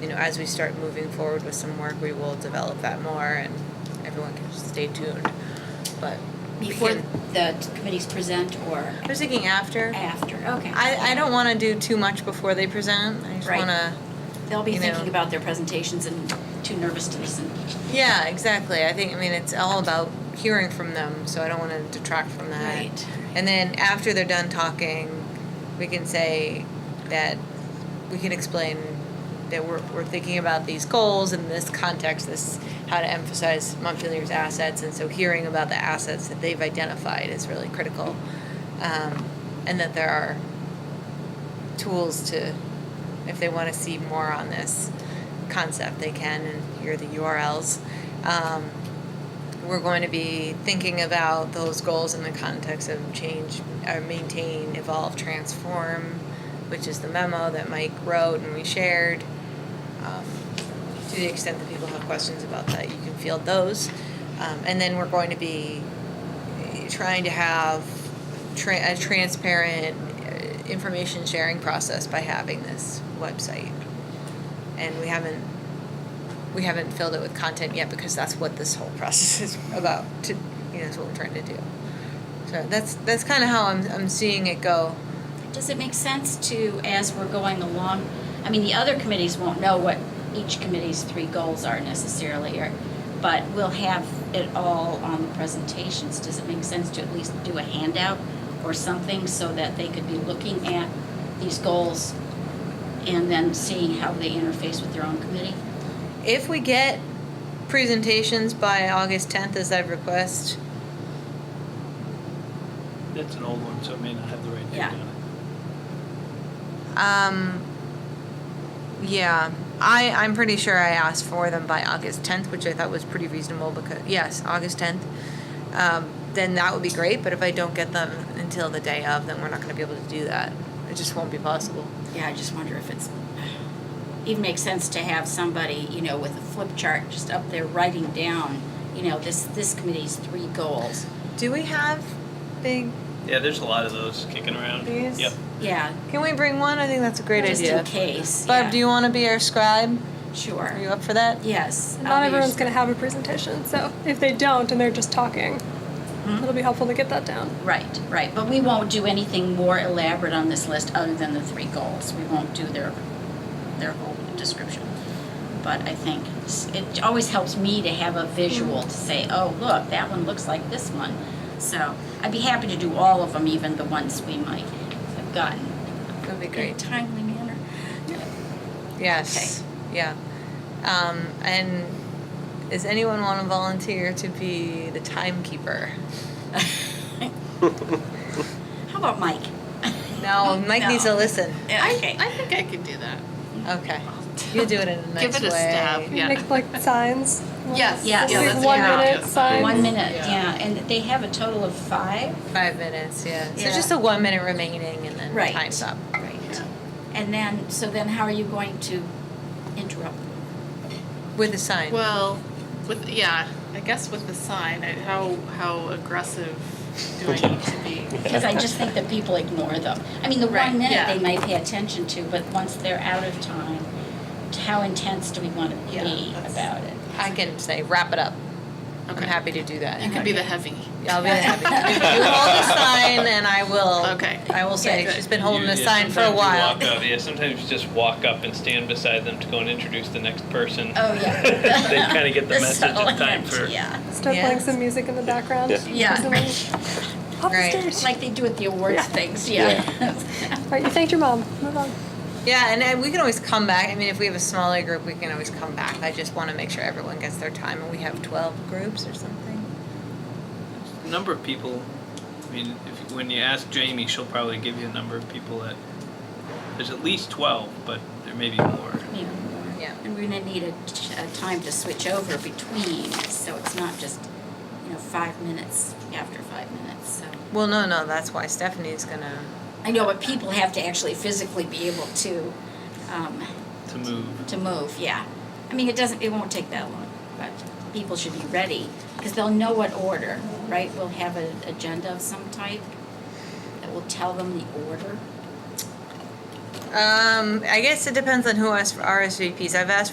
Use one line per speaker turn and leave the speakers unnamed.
you know, as we start moving forward with some work, we will develop that more and everyone can just stay tuned. But we
Before
can-
the t- committees present or
I was thinking after.
after? Okay.
I, I don't want to do too much before they present. I just
Right.
want to.
They'll be
you know.
thinking about their presentations and too nervous to listen.
Yeah, exactly. I think, I mean, it's all about hearing from them, so I don't want to detract from that.
Right.
And then after they're done talking, we can say that we can explain that we're, we're thinking about these goals in this context, this how to emphasize Montpelier's assets, and so hearing about the assets that they've identified is really critical, um, and that there are tools to, if they want to see more on this concept, they can, and here are the URLs. Um, we're going to be thinking about those goals in the context of change, uh, maintain, evolve, transform, which is the memo that Mike wrote and we shared. Um, to the extent that people have questions about that, you can field those. Um, and then we're going to be trying to have tra- a transparent uh, information sharing process by having this website. And we haven't we haven't filled it with content yet because that's what this whole process is about. To you know, is what we're trying to do. So that's that's kind of how I'm I'm seeing it go.
Does it make sense to, as we're going along, I mean, the other committees won't know what each committee's three goals are necessarily, or, but we'll have it all on the presentations. Does it make sense to at least do a handout or something so that they could be looking at these goals and then seeing how they interface with their own committee?
If we get presentations by August 10th, as I request,
That's an old one, so it may not have the right date
Yeah.
on it.
um, yeah, I I'm pretty sure I asked for them by August 10th, which I thought was pretty reasonable because yes, August 10th. Um, then that would be great, but if I don't get them until the day of, then we're not going to be able to do that. It just won't be possible.
Yeah, I just wonder if it's, even makes sense to have somebody, you know, with a flip chart just up there writing down, you know, this, this committee's three goals.
Do we have big
Yeah, there's a lot of those kicking around.
These?
Yep.
Yeah.
Can we bring one? I think that's a great
just
idea.
in case.
Barb,
yeah.
do you want to be our scribe? Are you
Sure.
up for that?
Yes. I'll
Not
be
everyone's
your-
going to have a presentation, so if they don't and they're just talking,
Hmm?
it'll be helpful to get that down.
Right, right. But we won't do anything more elaborate on this list other than the three goals. We won't do their, their whole description. But I think it's- it always helps me to have a visual to say, oh, look, that one looks like this one. So I'd be happy to do all of them, even the ones we might have gotten
That would be
in a
great.
timely manner.
Yes. Yeah. Um, and does anyone want to volunteer to be the timekeeper?
How about Mike?
No, Mike needs to listen.
Okay.
I think I could do that.
Okay. You do it in a nice
Give it
way.
a stab. Yeah.
Make like signs.
Yes.
Yes.
Yeah,
Like
that's a
one
good idea.
minute sign.
One minute,
Yeah.
yeah. And they have a total of five?
Five minutes, yeah. So
Yeah.
just a one minute remaining and then
Right.
time's up.
Right. And then, so then how are you going to interrupt?
With a sign.
Well, with yeah, I guess with the sign, I, how how aggressive do I need to be?
Because I just think that people ignore them. I mean, the
Right,
one minute
yeah.
they might pay attention to, but once they're out of time, t- how intense do we want to
Yeah,
be
that's-
about it?
I can say wrap it up.
Okay.
I'm happy to do that.
You could be the heavy.
I'll be the happy. you hold the sign, and I will.
Okay.
I will say
Good.
she's been holding
You-
the
yeah,
sign for a
sometimes you
while.
walk up- Yeah, sometimes you just walk up and stand beside them to go and introduce the next person.
Oh, yeah.
They kind of get the
They're
message
so
in time
amped,
for.
Yeah,
Start
Yeah.
playing some music in the background.
yeah,
Something
right.
like, Up
Right.
the stairs.
like they do at the awards things, yeah.
Right, you thanked your mom. Move on.
Yeah, and, and we can always come back. I mean, if we have a smaller group, we can always come back. I just want to make sure everyone gets their time, and we have twelve groups or something.
Number of people, I mean, if, when you ask Jamie, she'll probably give you a number of people that, there's at least twelve, but there may be more.
Maybe more.
Yeah.
And we're gonna need a, t- a time to switch over between, so it's not just, you know, five minutes after five minutes, so.
Well, no, no, that's why Stephanie's gonna.
I know, but people have to actually physically be able to, um,
To move.
to move, yeah. I mean, it doesn't, it won't take that long, but people should be ready, because they'll know what order, right? We'll have an agenda of some type that will tell them the order.
Um, I guess it depends on who asks for RSVPs. I've asked